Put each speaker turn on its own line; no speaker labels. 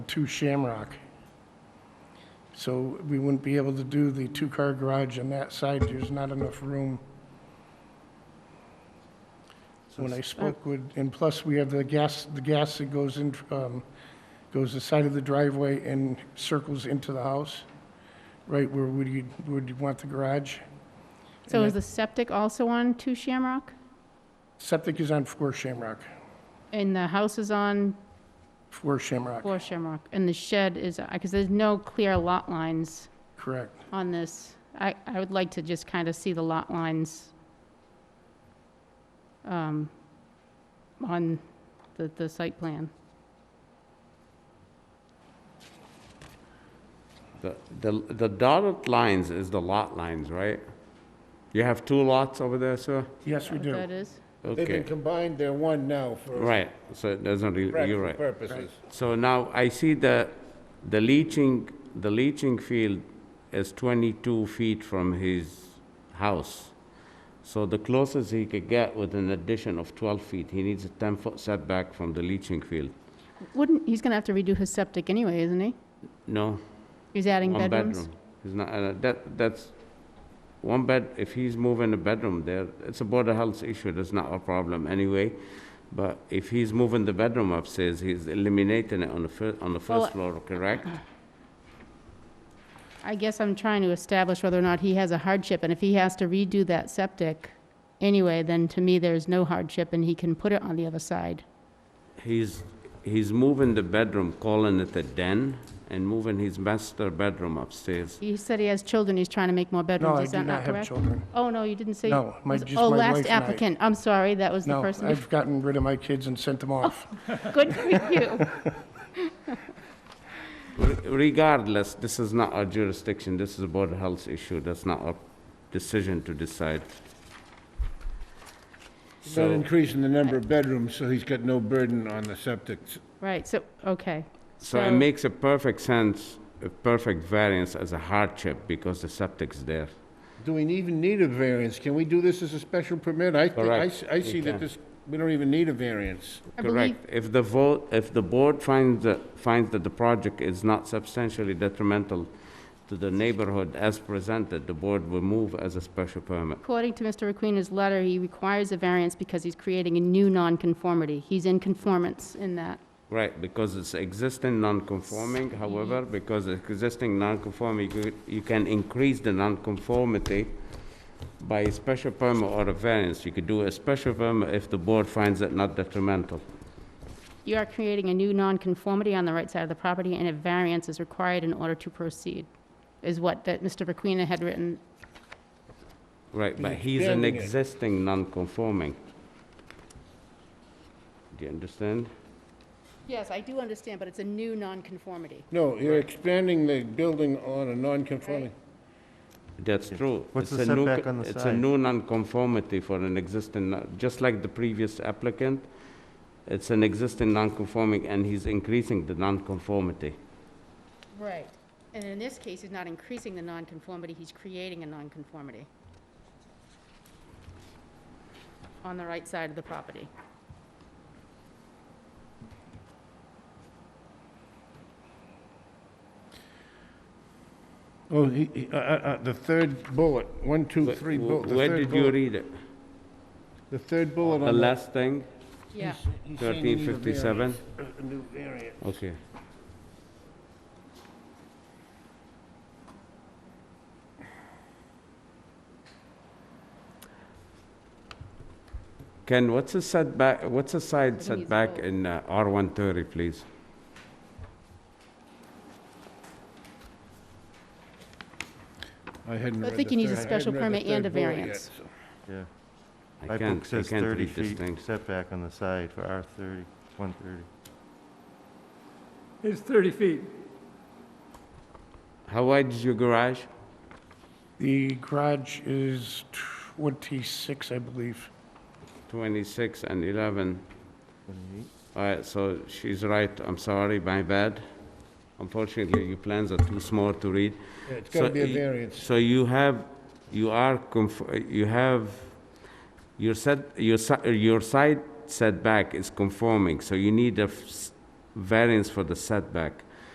two Shamrock. So we wouldn't be able to do the two-car garage on that side. There's not enough room. When I spoke with, and plus we have the gas, the gas that goes in, um, goes the side of the driveway and circles into the house, right where would you, would you want the garage?
So is the septic also on Two Shamrock?
Septic is on Four Shamrock,
And the house is on
Four Shamrock,
Four Shamrock? And the shed is, because there's no clear lot lines
correct.
on this. I, I would like to just kind of see the lot lines um, on the, the site plan.
The, the the dotted lines is the lot lines, right? You have two lots over there, sir?
Yes, we
What
do.
that is?
They've been
Okay,
combined, they're one now for
right, so it doesn't, re- you're
practical
right.
purposes.
So now I see the, the leaching, the leaching field is 22 feet from his house. So the closest he could get with an addition of 12 feet, he needs a 10-foot setback from the leaching field.
Wouldn't, he's going to have to redo his septic anyway, isn't he?
No,
He's adding
one
bedrooms?
bedroom. He's not, uh, that, that's, one bed, if he's moving a bedroom there, it's a border health issue, that's not a problem anyway. But if he's moving the bedroom upstairs, he's eliminating it on the fir, on the
Well,
first floor, correct?
I guess I'm trying to establish whether or not he has a hardship, and if he has to redo that septic anyway, then to me, there's no hardship, and he can put it on the other side.
He's, he's moving the bedroom, calling it a den, and moving his master bedroom upstairs.
He said he has children, he's trying to make more
No,
bedrooms,
I
is
do
that
not
not
have
correct?
children.
Oh, no, you didn't say?
No, my-
was-
just my
Oh,
wife
last
and I.
applicant, I'm sorry, that was the
No,
person.
I've gotten rid of my kids and sent them off.
Good for you.
Re- Regardless, this is not our jurisdiction, this is a border health issue, that's not our decision to decide.
He's Not increasing the number of bedrooms, so he's got no burden on the septic.
Right, so, okay.
So it makes a perfect sense, a perfect variance as a hardship because the septic's there.
Do we even need a variance? Can we do this as a special permit? I, thi- I
Correct.
s- I
You
see that
can.
this, we don't even need a variance.
I believe-
Correct. If the vote, if the board finds that, finds that the project is not substantially detrimental to the neighborhood as presented, the board will move as a special permit.
According to Mr. Requena's letter, he requires a variance because he's creating a new nonconformity. He's in conformance in that.
Right, because it's existing non-conforming, however, because it's existing non-conforming, you could- you can increase the non-conformity by a special permit or a variance. You could do a special permit if the board finds it not detrimental.
You are creating a new nonconformity on the right side of the property, and a variance is required in order to proceed, is what that Mr. Requena had written.
Right, but
He's
he's an
building it.
existing non-conforming. Do you understand?
Yes, I do understand, but it's a new nonconformity.
No, you're expanding the building on a non-conforming.
That's true.
What's
It's
the
a new
setback
co-
on the
It's a
side?
new nonconformity for an existing, no- just like the previous applicant, it's an existing nonconforming, and he's increasing the nonconformity.
Right. And in this case, he's not increasing the nonconformity, he's creating a nonconformity on the right side of the property.
Oh, he, he- uh, uh, uh, the third bullet, one, two,
Wh-
three,
wh-
bullet, the
Where
third
did you
bullet.
read it?
The third bullet
The
on that.
last thing,
Yeah.
he's saying you need a
1357?
variance, A a new variance.
Okay. Ken, what's a setback, what's a side
he's
setback
old.
in uh, R130, please?
I hadn't
I
read the
think you need a
third- I
special
hadn't read the
permit and
third
a
bullet
variance.
yet, so-
Yeah.
I
My
can't,
book
I
says
can't
30
read this
feet
thing.
setback on the side for R30, 130.
It's 30 feet.
How wide is your garage?
The garage is 26, I believe.
26 and 11. All right, so she's right, I'm sorry, my bad. Unfortunately, your plans are too small to read.
Yeah, It's gotta
So
be a
y-
variance.
So you have, you are, conf- you have, your set, your, si- your side setback is conforming, so you need a f- s- variance for the setback.